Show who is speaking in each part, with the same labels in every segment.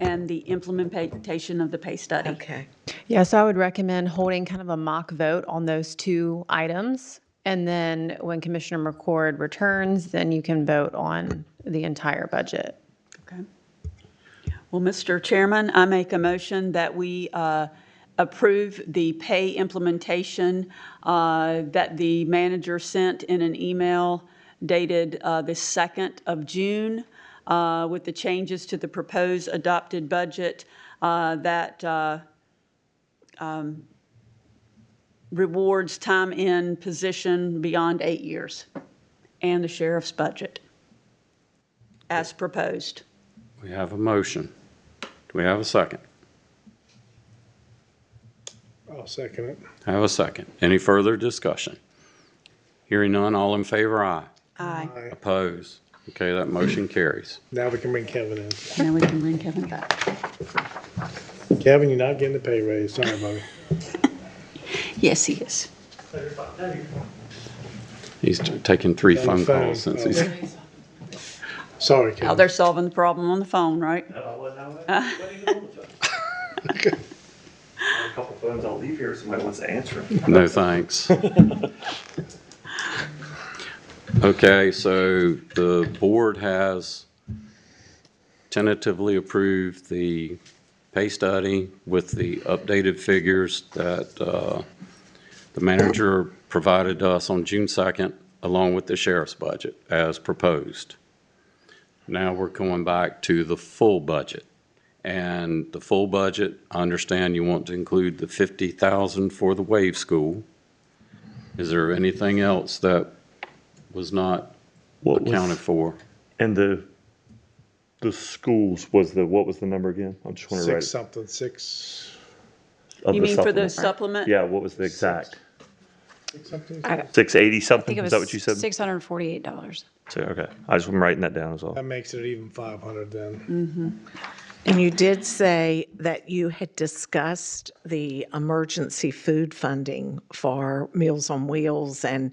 Speaker 1: and the implementation of the pay study.
Speaker 2: Okay.
Speaker 3: Yeah, so I would recommend holding kind of a mock vote on those two items. And then when Commissioner McCord returns, then you can vote on the entire budget.
Speaker 1: Okay. Well, Mr. Chairman, I make a motion that we uh, approve the pay implementation uh, that the manager sent in an email dated uh, the 2nd of June uh, with the changes to the proposed adopted budget uh, that uh, um, rewards time in position beyond eight years and the sheriff's budget as proposed.
Speaker 4: We have a motion. Do we have a second?
Speaker 5: I'll second it.
Speaker 4: I Have a second. Any further discussion? Hearing none, all in favor, aye.
Speaker 1: Aye.
Speaker 5: Aye.
Speaker 4: Oppose. Okay, that motion carries.
Speaker 5: Now we can bring Kevin in.
Speaker 1: Now we can bring Kevin back.
Speaker 5: Kevin, you're not getting the pay raise. Sorry, buddy.
Speaker 1: Yes, he is.
Speaker 4: He's taking three
Speaker 5: On the
Speaker 4: phone
Speaker 5: phone.
Speaker 4: calls since he's,
Speaker 5: Sorry,
Speaker 1: Now
Speaker 5: Kevin.
Speaker 1: they're solving the problem on the phone, right?
Speaker 6: No, I wasn't. I wasn't- I wasn't even on the phone. I had A couple phones, I'll leave here, if somebody wants to answer 'em.
Speaker 4: no thanks. Okay, so the board has tentatively approved the pay study with the updated figures that uh, the manager provided us on June 2nd, along with the sheriff's budget as proposed. Now we're going back to the full budget. And the full budget, I understand you want to include the 50,000 for the wave school. Is there anything else that was not
Speaker 6: What was-
Speaker 4: accounted for?
Speaker 6: And the, the schools was the, what was the number again? I'm just want to write.
Speaker 5: Six something, six,
Speaker 6: of
Speaker 1: You
Speaker 6: the
Speaker 1: mean for the
Speaker 6: supplement.
Speaker 1: supplement?
Speaker 6: Yeah, what was the exact?
Speaker 5: six something?
Speaker 6: Six eighty something?
Speaker 7: think it
Speaker 6: Is
Speaker 7: was
Speaker 6: that what you said?
Speaker 7: Six hundred and forty-eight dollars.
Speaker 6: So, Okay, I just, I'm writing that down as well.
Speaker 5: That makes it even five hundred
Speaker 7: Mm.
Speaker 5: then.
Speaker 2: And you did say that you had discussed the emergency food funding for Meals on Wheels, and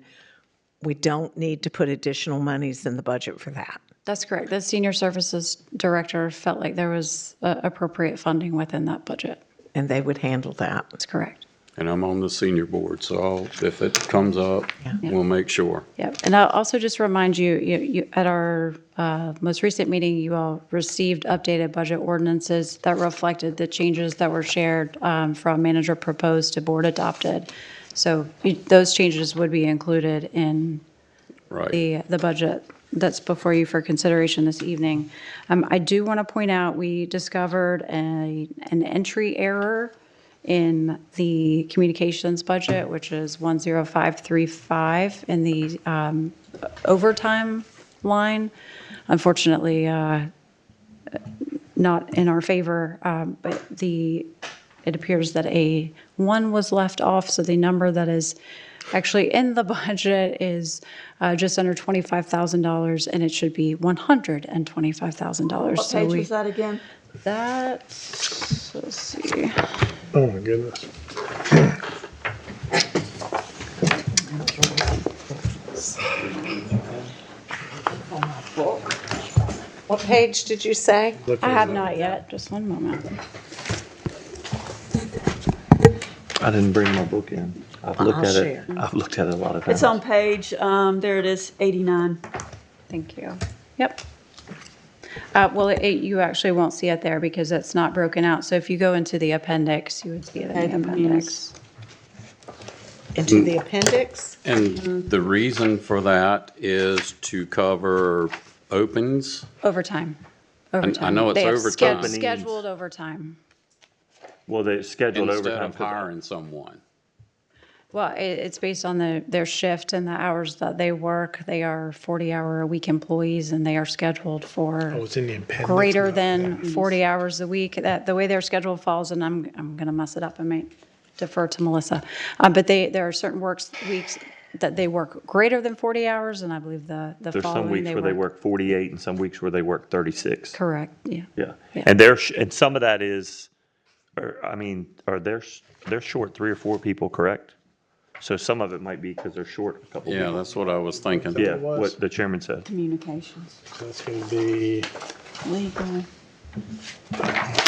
Speaker 2: we don't need to put additional monies in the budget for that.
Speaker 7: That's correct. The senior services director felt like there was uh, appropriate funding within that budget.
Speaker 2: And they would handle that.
Speaker 7: That's correct.
Speaker 4: And I'm on the senior board, so I'll, if it comes up, we'll make sure.
Speaker 7: Yep. And I'll also just remind you, you, you, at our, uh, most recent meeting, you all received updated budget ordinances that reflected the changes that were shared, um, from manager proposed to board adopted. So you- those changes would be included in
Speaker 4: Right.
Speaker 7: the, the budget that's before you for consideration this evening. Um, I do want to point out, we discovered a, an entry error in the communications budget, which is 10535 in the um, overtime line. Unfortunately, uh, not in our favor, um, but the, it appears that a one was left off, so the number that is actually in the budget is uh, just under $25,000, and it should be $125,000. So we-
Speaker 1: that again?
Speaker 6: Uh-huh.
Speaker 7: That, let's see,
Speaker 5: Oh, my goodness.
Speaker 2: What page did you say?
Speaker 5: Look
Speaker 7: I have
Speaker 5: at
Speaker 7: not yet, just one moment.
Speaker 6: I didn't bring my book in. I've looked
Speaker 2: I'll
Speaker 6: at it,
Speaker 2: share.
Speaker 6: I've looked at it a lot of times.
Speaker 1: It's on page, um, there it is, 89.
Speaker 7: Thank you. Yep. Uh, Well, it- you actually won't see it there because it's not broken out. So if you go into the appendix, you would see it in the appendix.
Speaker 2: Into the appendix?
Speaker 4: And the reason for that is to cover opens.
Speaker 7: Overtime.
Speaker 4: I know it's
Speaker 7: They have
Speaker 4: overtime.
Speaker 7: sched- Scheduled overtime.
Speaker 6: Well, they scheduled
Speaker 4: Instead
Speaker 6: overtime.
Speaker 4: of
Speaker 6: for that.
Speaker 4: hiring someone.
Speaker 7: Well, i it's based on the, their shift and the hours that they work. They are 40-hour-a-week employees, and they are scheduled
Speaker 5: Oh,
Speaker 7: for
Speaker 5: it's in the appendix.
Speaker 7: greater
Speaker 5: No.
Speaker 7: than 40 hours a week. That, the way their schedule falls, and I'm, I'm going to mess it up, I may defer to Melissa. Uh, But they, there are certain works, weeks that they work greater than 40 hours, and I believe the, the
Speaker 6: There's some
Speaker 7: following
Speaker 6: weeks
Speaker 7: they
Speaker 6: where they
Speaker 7: work.
Speaker 6: work forty-eight and some weeks where they work thirty-six.
Speaker 7: Correct, yeah.
Speaker 6: Yeah,
Speaker 7: Yeah.
Speaker 6: and they're sh- and some of that is, or I mean, are they're sh- they're short three or four people, correct? So some of it might be because they're short a couple.
Speaker 4: Yeah, that's what I was thinking.
Speaker 6: people. yeah.
Speaker 5: was.
Speaker 6: What the chairman said.
Speaker 1: Communications,
Speaker 5: That's gonna be
Speaker 1: legal,